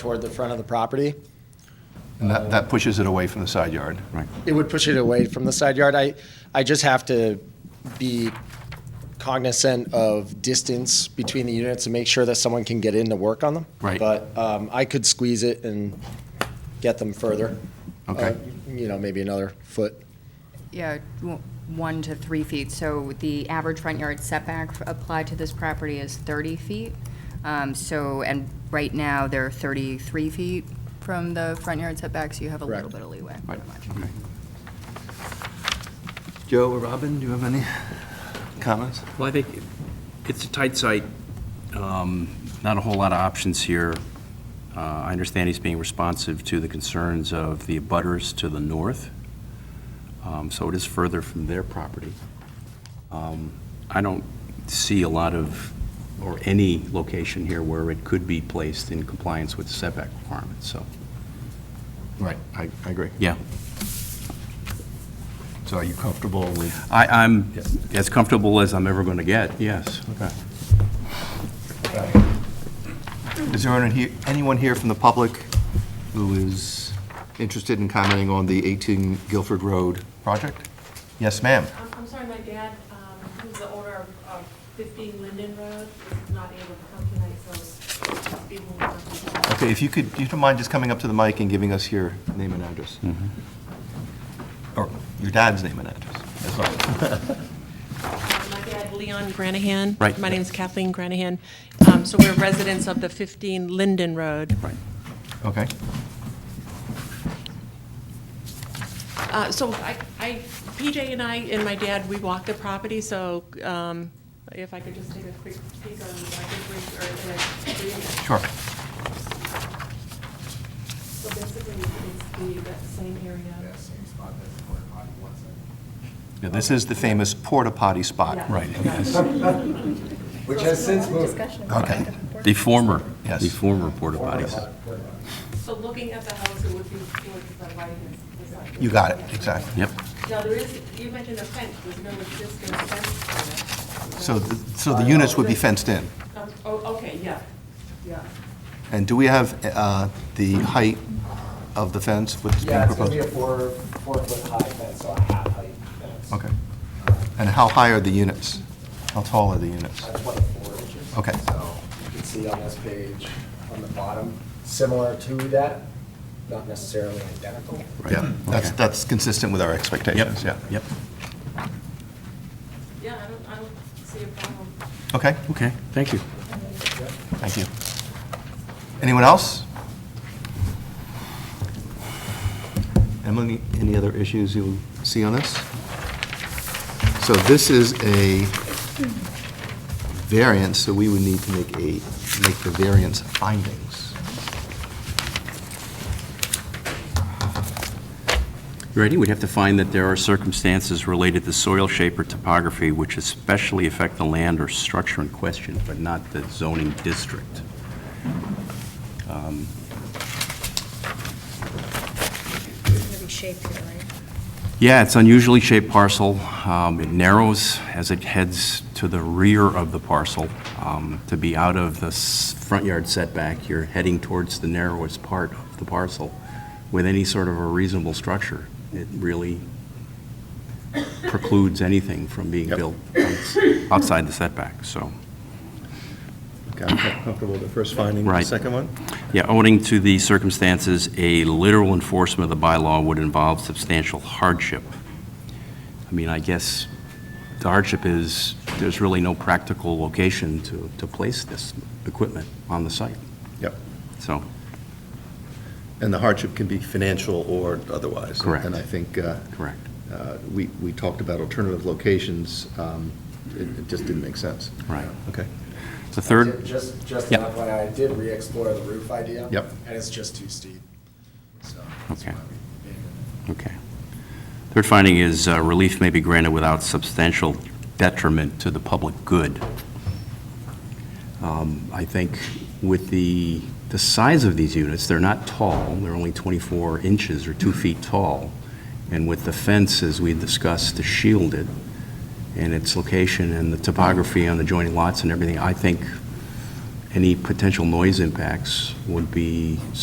toward the front of the property. And that, that pushes it away from the side yard. Right. It would push it away from the side yard. I, I just have to be cognizant of distance between the units and make sure that someone can get in to work on them. Right. But um, I could squeeze it and get them further. Okay. Uh, You know, maybe another foot. Yeah, w- one to three feet. So the average front yard setback f- applied to this property is 30 feet. Um, So, and right now, they're 33 feet from the front yard setback, so you have a little Correct. bit of leeway. not much. Joe or Robin, do you have any comments? Well, I think it's a tight site, um, not a whole lot of options here. Uh, I understand he's being responsive to the concerns of the abutters to the north, um, so it is further from their property. Um, I don't see a lot of, or any location here where it could be placed in compliance with setback requirements, so. Right, I, I agree. Yeah. So are you comfortable with? I, I'm as comfortable as I'm ever going to get, yes. Okay. Is there anyone here, anyone here from the public who is interested in commenting on the 18 Guilford Road project? Yes, ma'am. I'm, I'm sorry, my dad, um, who's the owner of, of fifteen Linden Road, is not able to come tonight, so it's being moved on to the- Okay, if you could, if you don't mind just coming up to the mic and giving us your name and address? Mm-hmm. Or your dad's name and address, as well. Uh, My dad, Leon Granahan. Right. My name's Kathleen Granahan. Um, so we're residents of the 15 Linden Road. Right. Okay. Uh, so I, I, PJ and I and my dad, we walked the property, so, um, if I could just take a quick peek on, I think, we- or, uh, Sure. so basically, it's the, that same area. Yeah, This is the famous porta potty spot. Yeah. Right, yes. Which has since moved. Okay. The former, Yes. the former porta potties. So looking at the house, it would be towards the right hand side. You got it, exactly. Yep. Now, there is, you mentioned a fence, there's no existing fence. So, th- so the units would be fenced in. Um, Oh, okay, yeah, yeah. And do we have uh, the height of the fence with this being Yeah, it's gonna be proposed? a four, four foot high fence, so a half height fence. Okay. And how high are the units? How tall are the units? Uh, Twenty-four inches. Okay. So you can see on this page, on the bottom, similar to that, not necessarily identical. Yeah, that's, that's consistent with our expectations, yeah. Yep, Yeah, I don't, I don't see a problem. Okay, okay, thank you. thank you. Anyone else? Emily, any other issues you see on this? So this is a variance, so we would need to make a, make the variance findings. Ready? We'd have to find that there are circumstances related to soil shape or topography which especially affect the land or structure in question, but not the zoning district. Um, gonna be shaped here, right? Yeah, it's unusually shaped parcel. Um, It narrows as it heads to the rear of the parcel. Um, To be out of the s- front yard setback, you're heading towards the narrowest part of the parcel with any sort of a reasonable structure. It really precludes anything from being built outs- outside the setback, so. Okay, I'm comfortable with the first finding. The Right. Second one? Yeah, owing to the circumstances, a literal enforcement of the bylaw would involve substantial hardship. I mean, I guess the hardship is, there's really no practical location to, to place this equipment on the site, Yep. so. And the hardship can be financial or otherwise. Correct. And I think uh, Correct. uh, we, we talked about alternative locations. um, It it just didn't make sense. Right. Okay. The third. Just, just Yep. enough when I did re-explore the roof idea. Yep. And it's just too steep, so. that's Okay. why we made it. Okay. Third finding is uh, relief may be granted without substantial detriment to the public good. Um, I think with the, the size of these units, they're not tall, they're only 24 inches or two feet tall, and with the fence, as we discussed, to shield it, and its location and the topography on the adjoining lots and everything, I think any potential noise impacts would be